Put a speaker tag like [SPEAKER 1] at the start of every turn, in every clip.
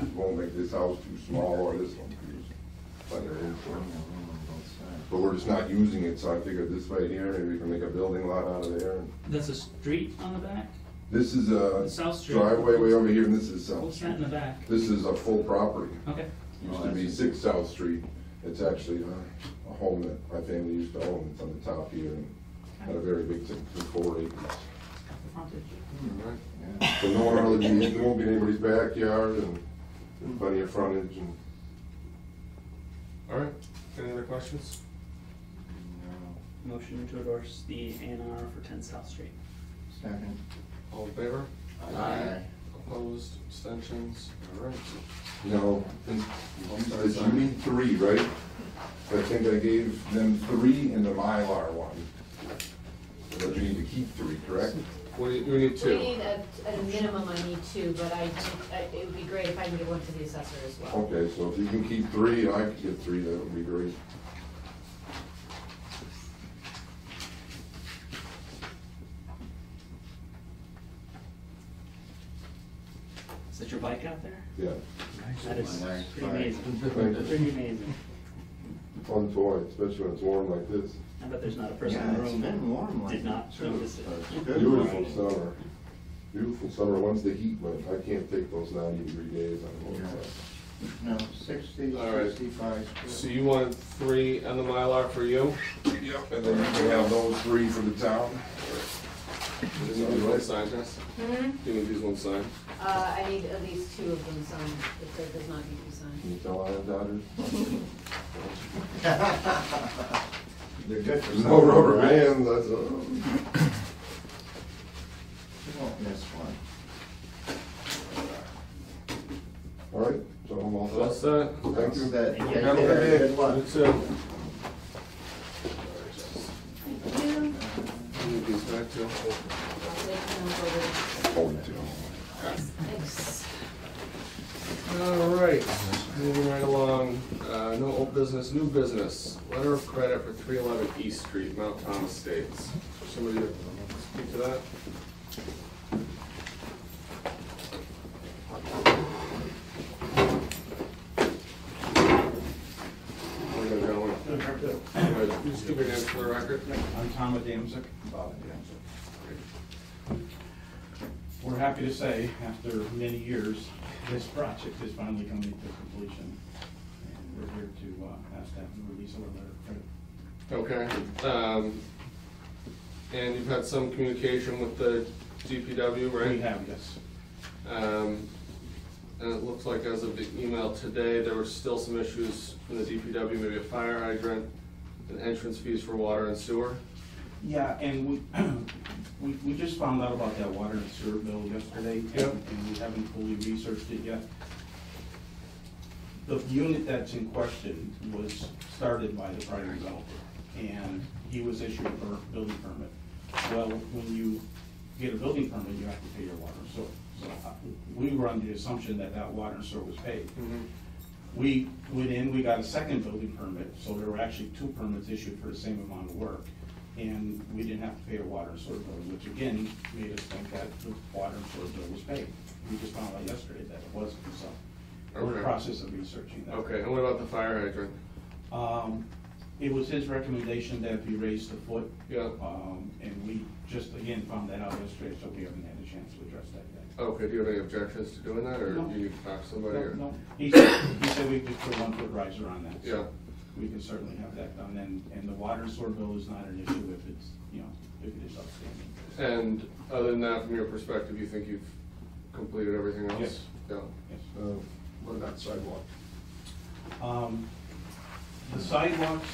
[SPEAKER 1] we're gonna make this house too small or this one too small. But there is, but we're just not using it, so I figured this way here, maybe we can make a building lot out of there.
[SPEAKER 2] That's a street on the back?
[SPEAKER 1] This is
[SPEAKER 2] The
[SPEAKER 1] a
[SPEAKER 2] South Street?
[SPEAKER 1] Uh, driveway way over here, and this is South
[SPEAKER 2] What's that in
[SPEAKER 1] Street.
[SPEAKER 2] the back?
[SPEAKER 1] This is a full property.
[SPEAKER 2] Okay,
[SPEAKER 1] Used
[SPEAKER 3] Oh,
[SPEAKER 1] to be Six South Street. It's actually a, a home that my family used to own. It's on the top here and had a very big, thing, four acres.
[SPEAKER 2] frontage.
[SPEAKER 1] So no one really, be- it won't be in anybody's backyard and there's plenty of frontage and.
[SPEAKER 4] All right, any other questions?
[SPEAKER 2] Motion to endorse the A and R for ten South Street.
[SPEAKER 3] Second.
[SPEAKER 4] All in favor?
[SPEAKER 3] Aye.
[SPEAKER 4] Opposed, abstentions, all right.
[SPEAKER 1] No, and you you need three, right? I think I gave them three and the Mylar one. But you need to keep three, correct?
[SPEAKER 4] What do you, we need
[SPEAKER 5] We
[SPEAKER 4] two?
[SPEAKER 5] need, at, at a minimum, I need two, but I, I- it would be great if I can get one to the assessor as well.
[SPEAKER 1] Okay, so if you can keep three, and I can get three, that would be great.
[SPEAKER 2] Is that your bike out there?
[SPEAKER 1] Yeah,
[SPEAKER 2] That is
[SPEAKER 3] Nice.
[SPEAKER 2] pretty amazing, pretty amazing.
[SPEAKER 1] fun toy, especially when it's warm like this.
[SPEAKER 2] I bet there's not a person in
[SPEAKER 3] Yeah,
[SPEAKER 2] the
[SPEAKER 3] it's
[SPEAKER 2] room
[SPEAKER 3] been warm
[SPEAKER 2] that
[SPEAKER 3] like
[SPEAKER 2] did
[SPEAKER 3] that
[SPEAKER 2] not
[SPEAKER 3] too.
[SPEAKER 2] notice it.
[SPEAKER 3] It's good.
[SPEAKER 1] Beautiful summer, beautiful summer, once the heat went, I can't take those ninety degree days, I'm
[SPEAKER 3] Yeah.
[SPEAKER 1] over
[SPEAKER 3] No, sixty,
[SPEAKER 4] All right.
[SPEAKER 3] sixty-five.
[SPEAKER 4] So you want three and the Mylar for you?
[SPEAKER 1] it. Yep. And then you can have those three for the town.
[SPEAKER 4] These are the one sign, Jess?
[SPEAKER 5] Hmm?
[SPEAKER 4] Do you need these one sign?
[SPEAKER 5] Uh, I need at least two of them signed, if there does not need to be signed.
[SPEAKER 1] Can you tell I have daughters?
[SPEAKER 3] They're good for
[SPEAKER 1] There's no rubber
[SPEAKER 3] something, right?
[SPEAKER 1] bands, that's all.
[SPEAKER 3] You won't miss one.
[SPEAKER 1] All right, so I'm all set.
[SPEAKER 4] What's that?
[SPEAKER 1] Thank you.
[SPEAKER 3] That,
[SPEAKER 2] Thank you.
[SPEAKER 3] that,
[SPEAKER 4] Have a good day.
[SPEAKER 3] good luck.
[SPEAKER 4] You too. All right, Jess. You need these back too?
[SPEAKER 5] I'll take them over.
[SPEAKER 1] Hold it to
[SPEAKER 5] Thanks.
[SPEAKER 4] All right, moving right along, uh, no old business, new business, letter of credit for three eleven East Street, Mount Thomas Estates. Somebody speak to that? Where you going? Good. Can you Just give your name for the record.
[SPEAKER 6] I'm Tom Adamczyk, Bob Adamczyk. We're happy to say, after many years, this project is finally coming to completion. And we're here to uh, ask staff to release a letter of credit.
[SPEAKER 4] Okay, um, and you've had some communication with the DPW, right?
[SPEAKER 6] We have, yes.
[SPEAKER 4] Um, And it looks like as of the email today, there were still some issues in the DPW, maybe a fire hydrant and entrance fees for water and sewer.
[SPEAKER 6] Yeah, and we, we, we just found out about that water and sewer bill yesterday. and-
[SPEAKER 4] Yep.
[SPEAKER 6] And we haven't fully researched it yet. The unit that's in question was started by the prior developer, and he was issued a per- building permit. Well, when you get a building permit, you have to pay your water and sewer. So uh, we were under the assumption that that water and sewer was paid.
[SPEAKER 4] Hmm.
[SPEAKER 6] We went in, we got a second building permit, so there were actually two permits issued for the same amount of work. And we didn't have to pay a water and sewer bill, which again made us think that the water and sewer bill was paid. We just found out yesterday that it wasn't, so we're in
[SPEAKER 4] Okay.
[SPEAKER 6] the process of researching that.
[SPEAKER 4] Okay, and what about the fire hydrant?
[SPEAKER 6] Um, it was his recommendation that we raise the foot.
[SPEAKER 4] Yeah.
[SPEAKER 6] Um, and we just again found that out yesterday, so we haven't had a chance to address that yet.
[SPEAKER 4] Okay, do you have any objections to doing that, or
[SPEAKER 6] No.
[SPEAKER 4] do you need to talk to somebody?
[SPEAKER 6] No,
[SPEAKER 4] or-
[SPEAKER 6] no. He said, he said we could put one foot riser on that. so
[SPEAKER 4] Yeah.
[SPEAKER 6] We can certainly have that done, and, and the water and sewer bill is not an issue if it's, you know, if it is outstanding.
[SPEAKER 4] And other than that, from your perspective, you think you've completed everything else?
[SPEAKER 6] Yes.
[SPEAKER 4] Yeah.
[SPEAKER 6] Yes.
[SPEAKER 1] What about sidewalk?
[SPEAKER 6] Um, The sidewalks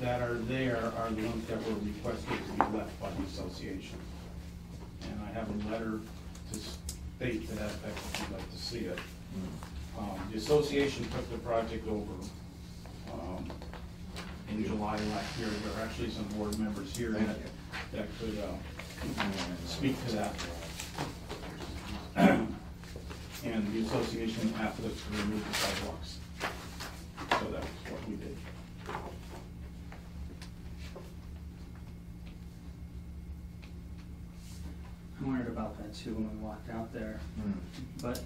[SPEAKER 6] that are there are the ones that were requested to be left by the association. And I have a letter to state to that effect if you'd like to see it. Um, The association took the project over um, in July last year. There are actually some board members here that that could uh, speak to that. And the association asked us to remove the sidewalks. So that's what we did.
[SPEAKER 2] I'm worried about that too when we walked out there,
[SPEAKER 3] Hmm.
[SPEAKER 2] but